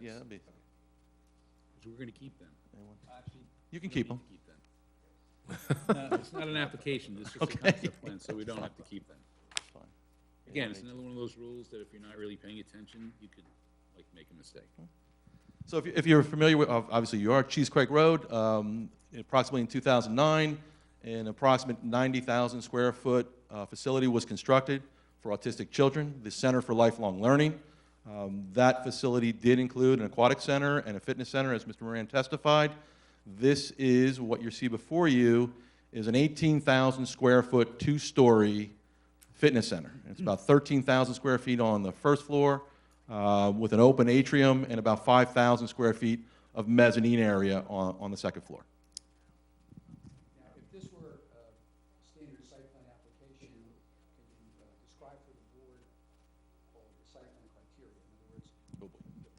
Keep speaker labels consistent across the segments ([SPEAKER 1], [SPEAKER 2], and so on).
[SPEAKER 1] Yeah, that'd be,
[SPEAKER 2] Because we're gonna keep them.
[SPEAKER 1] you can keep them.
[SPEAKER 2] Keep them. No, It's not an application, it's just a
[SPEAKER 1] Okay.
[SPEAKER 2] concept plan, so we don't have to keep them.
[SPEAKER 1] Fine.
[SPEAKER 2] Again, it's another one of those rules that if you're not really paying attention, you could, like, make a mistake.
[SPEAKER 1] Hmm. So if you- if you're familiar with, ob- obviously you are, Cheesecrake Road, um, approximately in 2009, an approximate 90,000 square foot uh, facility was constructed for autistic children, the Center for Lifelong Learning. Um, That facility did include an aquatic center and a fitness center, as Mr. Moran testified. This is, what you see before you, is an 18,000 square foot, two-story fitness center. It's about 13,000 square feet on the first floor uh, with an open atrium and about 5,000 square feet of mezzanine area on, on the second floor.
[SPEAKER 3] Now, if this were a standard site plan application, could you uh, describe for the board all the site plan criteria? In other words, the parking,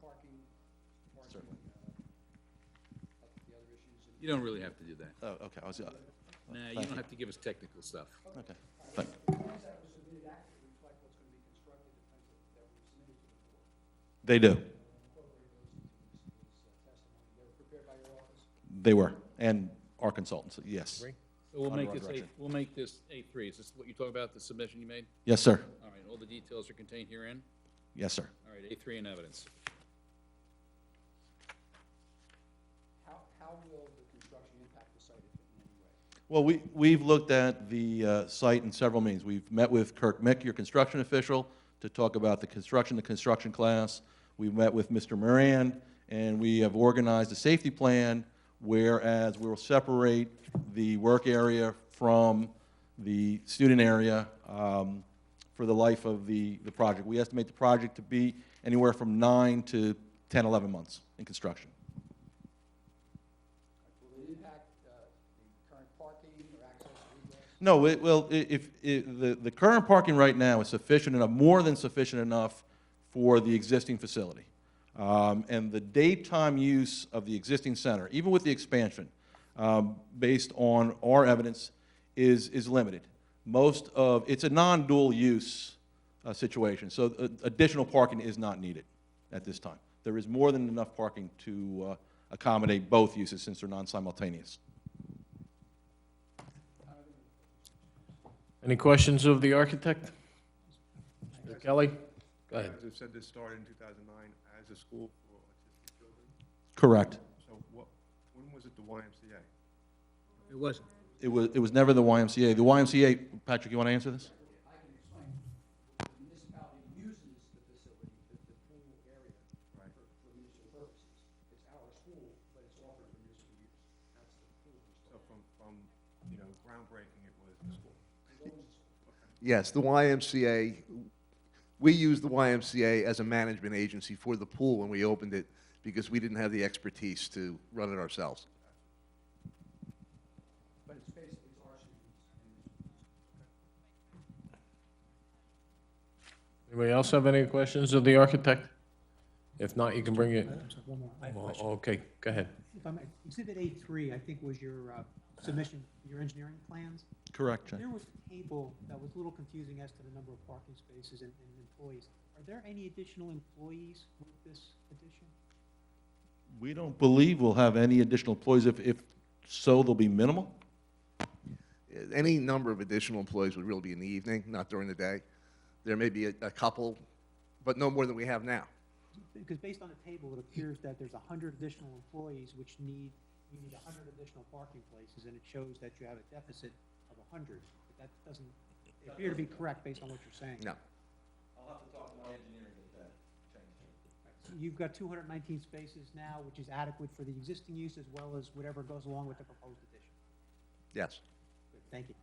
[SPEAKER 3] parking,
[SPEAKER 1] Certainly.
[SPEAKER 3] uh, up the other issues. and-
[SPEAKER 2] You don't really have to do that.
[SPEAKER 1] Oh, okay, I was,
[SPEAKER 2] Nah,
[SPEAKER 1] uh,
[SPEAKER 2] you don't
[SPEAKER 1] Thank you.
[SPEAKER 2] have to give us technical stuff.
[SPEAKER 1] okay, thank,
[SPEAKER 3] As long as that was submitted accurately, reflect what's going to be constructed, the plans that that were submitted to the board,
[SPEAKER 1] they do,
[SPEAKER 3] incorporate those into this this, uh, testimony. They were prepared by your office?
[SPEAKER 1] they were, and our consultants, yes.
[SPEAKER 2] So we'll
[SPEAKER 1] Under
[SPEAKER 2] make
[SPEAKER 1] our
[SPEAKER 2] this a,
[SPEAKER 1] direction.
[SPEAKER 2] we'll make this A three. Is this what you talked about, the submission you made?
[SPEAKER 1] Yes, sir,
[SPEAKER 2] All right, all the details are contained herein?
[SPEAKER 1] yes, sir.
[SPEAKER 2] All right, A three in evidence.
[SPEAKER 3] How, how will the construction impact the site if in any way?
[SPEAKER 1] Well, we, we've looked at the uh, site in several means. We've met with Kirk Mick, your construction official, to talk about the construction, the construction class. We've met with Mr. Moran, and we have organized a safety plan, whereas we will separate the work area from the student area um, for the life of the, the project. We estimate the project to be anywhere from nine to 10, 11 months in construction.
[SPEAKER 3] Will it impact uh, the current parking or access to egress?
[SPEAKER 1] No, it, well, i- if, i the, the current parking right now is sufficient enough, more than sufficient enough for the existing facility. Um, and the daytime use of the existing center, even with the expansion, um, based on our evidence, is, is limited. Most of, it's a non-dual use, uh, situation, so uh, additional parking is not needed at this time. There is more than enough parking to, uh, accommodate both uses since they're non-simultaneous.
[SPEAKER 4] Any questions of the architect? Mr. Kelly? Go ahead.
[SPEAKER 5] As I've said, this started in 2009 as a school for autistic children.
[SPEAKER 1] Correct.
[SPEAKER 5] So what, when was it the YMCA?
[SPEAKER 2] It wasn't.
[SPEAKER 1] It was, it was never the YMCA. The YMCA, Patrick, you want to answer this?
[SPEAKER 3] I can explain. The municipality uses the facility, the, the pool area for, for municipal purposes. It's our school, but it's offered for municipal use. That's the pool.
[SPEAKER 5] So from, from, you know, groundbreaking, it was the school.
[SPEAKER 6] Yes, the YMCA, we used the YMCA as a management agency for the pool when we opened it because we didn't have the expertise to run it ourselves.
[SPEAKER 3] But it's basically, it's our students and
[SPEAKER 4] Anybody else have any questions of the architect? If not, you can bring it.
[SPEAKER 7] I'm sorry, one more. I have a
[SPEAKER 4] Well,
[SPEAKER 7] question.
[SPEAKER 4] Okay, go ahead.
[SPEAKER 7] If I may, Exhibit A3, I think, was your uh, submission, your engineering plans.
[SPEAKER 1] Correct,
[SPEAKER 7] There was a table that was a little confusing as to the number of parking spaces and and employees. Are there any additional employees with this addition?
[SPEAKER 1] We don't believe we'll have any additional employees. If, if so, they'll be minimal.
[SPEAKER 6] Any number of additional employees would really be in the evening, not during the day. There may be a, a couple, but no more than we have now.
[SPEAKER 7] Because based on the table, it appears that there's 100 additional employees which need, you need 100 additional parking places, and it shows that you have a deficit of 100. But That doesn't appear to be correct based on what you're saying.
[SPEAKER 6] No.
[SPEAKER 7] You've got 219 spaces now, which is adequate for the existing use as well as whatever goes along with the proposed addition.
[SPEAKER 6] Yes.
[SPEAKER 7] Good, Thank you.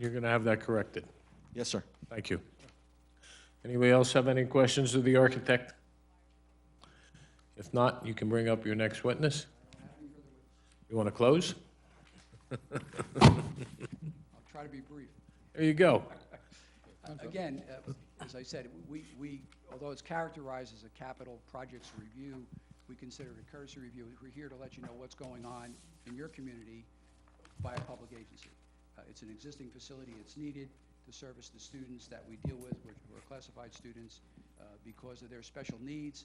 [SPEAKER 4] You're going to have that corrected.
[SPEAKER 1] Yes, sir.
[SPEAKER 4] Thank you. Anybody else have any questions of the architect? If not, you can bring up your next witness. You want to close?
[SPEAKER 3] I'll try to be brief.
[SPEAKER 4] There you go.
[SPEAKER 3] Again, uh, as I said, we, we, although it's characterized as a capital projects review, we consider it a cursory review. We're here to let you know what's going on in your community by a public agency. Uh, It's an existing facility, it's needed to service the students that we deal with, which are classified students. Uh, Because of their special needs,